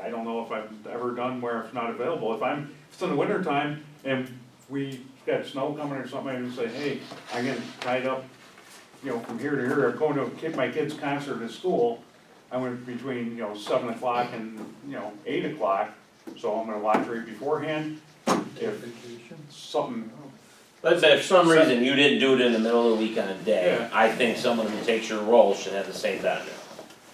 I don't know if I've ever done where it's not available, if I'm, if it's in the winter time and we got snow coming or something, I would say, hey, I'm getting tied up, you know, from here to here, I'm going to kid, my kid's concert at school, I went between, you know, seven o'clock and, you know, eight o'clock, so I'm gonna watch right beforehand, if something, Let's say if some reason you didn't do it in the middle of the week on a Yeah. day, I think someone who takes your role should have the same benefit,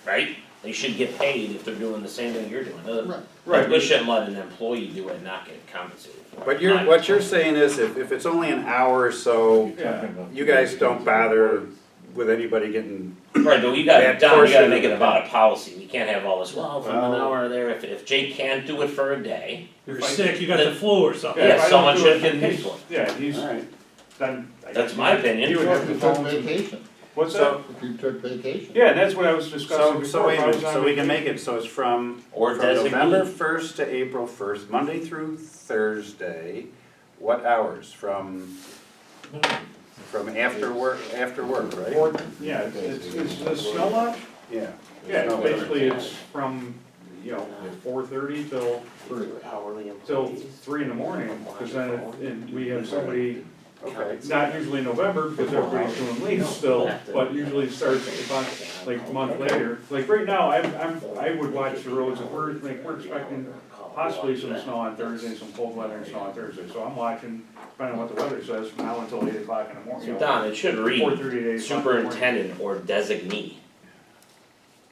right? They should get paid if they're doing the same thing you're doing, Uh, Right. we shouldn't let an employee do it and not get compensated for it. But you're, My- what you're saying is if, if it's only an hour or so, yeah. you guys don't bother with anybody getting, Right, but we gotta, That Don, we gotta portion make of it it. about a policy, we can't have all this, well, from an Well- hour there, if if Jake can't do it for a day, You're sick, you got the flu or something. Yeah, if Yeah, I don't someone do should it, get paid for it. Yeah, he's, alright. then. I That's guess my he- opinion. He would have If to you phone. took some- vacation, What's that? So, if you took vacation. Yeah, that's what I was discussing before. so, so wait a if I minute, was on so we can vacation. make it, so it's from, or from designate. November first to April first, Monday through Thursday, what hours? From, from after work, after work, right? Or- Yeah, it's, it's the snow lodge? Yeah. Yeah, No, basically it's from, you know, four thirty till, Hourly employees. till three in the morning, cause then, it- and we have somebody, Okay, not usually November, because everybody's doing leaves still, but usually starts about, like, a month later. Like, right now, I'm, I'm, I would watch the roads, and we're, like, we're expecting possibly some snow on Thursday, some cold weather and snow on Thursday, so I'm watching, depending on what the weather says, from now until eight o'clock in the morning. So Don, it should read. Four thirty days. superintendent or designee.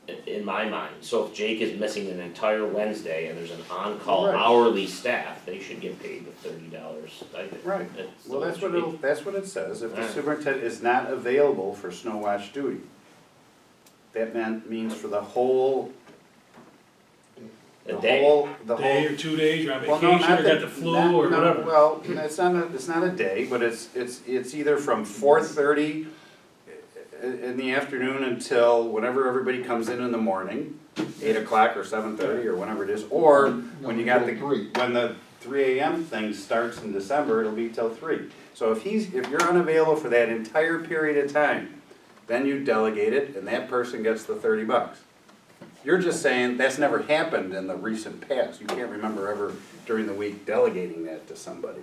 i- In my mind, so if Jake is missing an entire Wednesday and there's an on-call Right. hourly staff, they should get paid the thirty dollars stipend. right. That's the Well, way that's it what should be. it, that's what it says, if the Alright. superintendent is not available for snow watch duty. That meant, means for the whole, the A day. whole, the whole. Day or two days, you're on Well, no, vacation, not or got that- the flu not- or no, whatever. Well, it's not a, it's not a day, but it's, it's, it's either from four thirty in the afternoon until whenever everybody comes in in the morning, eight o'clock or seven thirty or whenever it is, or when you got the, Until three. when the three AM thing starts in December, it'll be till three. So if he's, if you're unavailable for that entire period of time, then you delegate it and that person gets the thirty bucks. You're just saying that's never happened in the recent past. You can't remember ever during the week delegating that to somebody.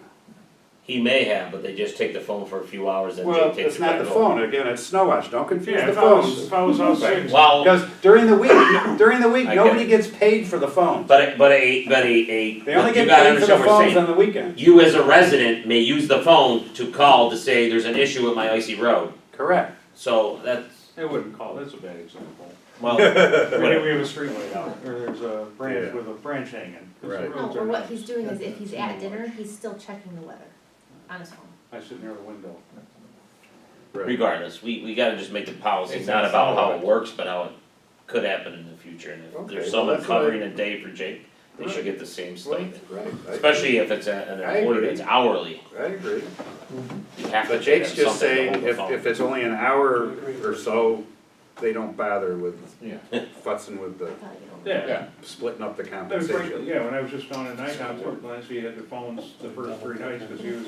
He may have, but they just take the phone for a few hours and Well, Jake takes it's it back not the over. phone, again, it's snow watch, don't confuse Yeah, the if I was, phones. if I was out sick, Well, Because during the week, during the week, I get nobody it. gets paid for the phone. but a, but a, but a, a, you They only gotta get paid for the understand what I'm phones on saying. the weekend. You as a resident may use the phone to call to say there's an issue with my icy road, Correct. so that's, I wouldn't call, that's a bad example. well, We have we have a street light out, or there's a branch Yeah. with a branch hanging. 'cause the Right. No, roads or are Oh, what nice. he's doing is if he's at dinner, he's still checking the weather on his phone. I sit near the window. regardless, we, we gotta just make the policy, It's not not about how solid. it works, but how it could happen in the future, and if Okay, there's well, someone that's what I- covering a day for Jake, they should get the same stipend. Right, Especially if it's a- an I employee agree. that's hourly, I agree. you have to But pay them something Jake's just to hold saying, the if, phone. if it's only an hour or so, they don't bother with futzing with the, Probably get over it. Yeah. splitting up the That was pretty, compensation. yeah, when I was just down at night, I worked last, he had the phones the first three nights, cause he was,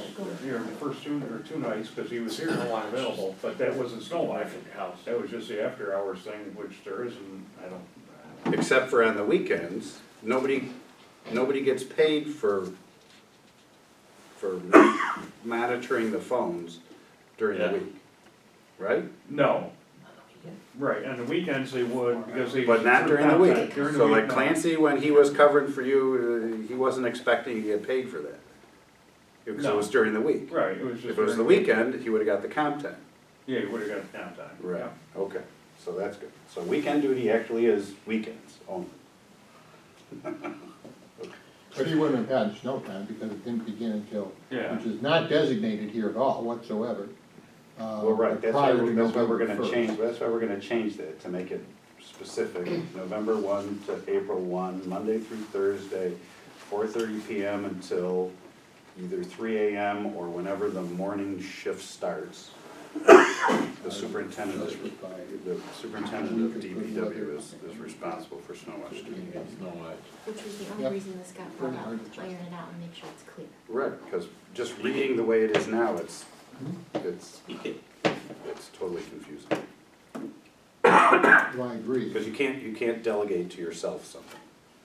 you know, the first two, or two nights, cause he was here and unavailable, but that wasn't snow life. That was just the after hours thing, which there isn't, I don't, Except for on the weekends, nobody, nobody gets paid for, for monitoring the phones during the Yeah. week, right? no. Right, on the weekends they would, because they. But not during the week. During the So week, like no. Clancy, when he was covering for you, uh, he wasn't expecting to get paid for that. Because it No. was during the week. Right, it was just. If it was during- the weekend, he would've got the comp time. Yeah, you would've got downtime. yeah. Okay, so that's good. So weekend duty actually is weekends only. But he wouldn't have had snow time because it didn't begin until, Yeah. which is not designated here at all whatsoever. uh, Well, right, that's prior why, to that's why November we're gonna 1st. change, that's why we're gonna change that, to make it specific. November one to April one, Monday through Thursday, four thirty PM until either three AM or whenever the morning shift starts. The superintendent is, the superintendent of DPW is, is responsible for snow watch duty. Which was the only Yep. reason this got brought Pretty up, hard to check. iron it out and make sure it's clear. Right, because just reading the way it is now, it's, it's, You could- it's totally confusing. Well, I agree. Because you can't, you can't delegate to yourself something.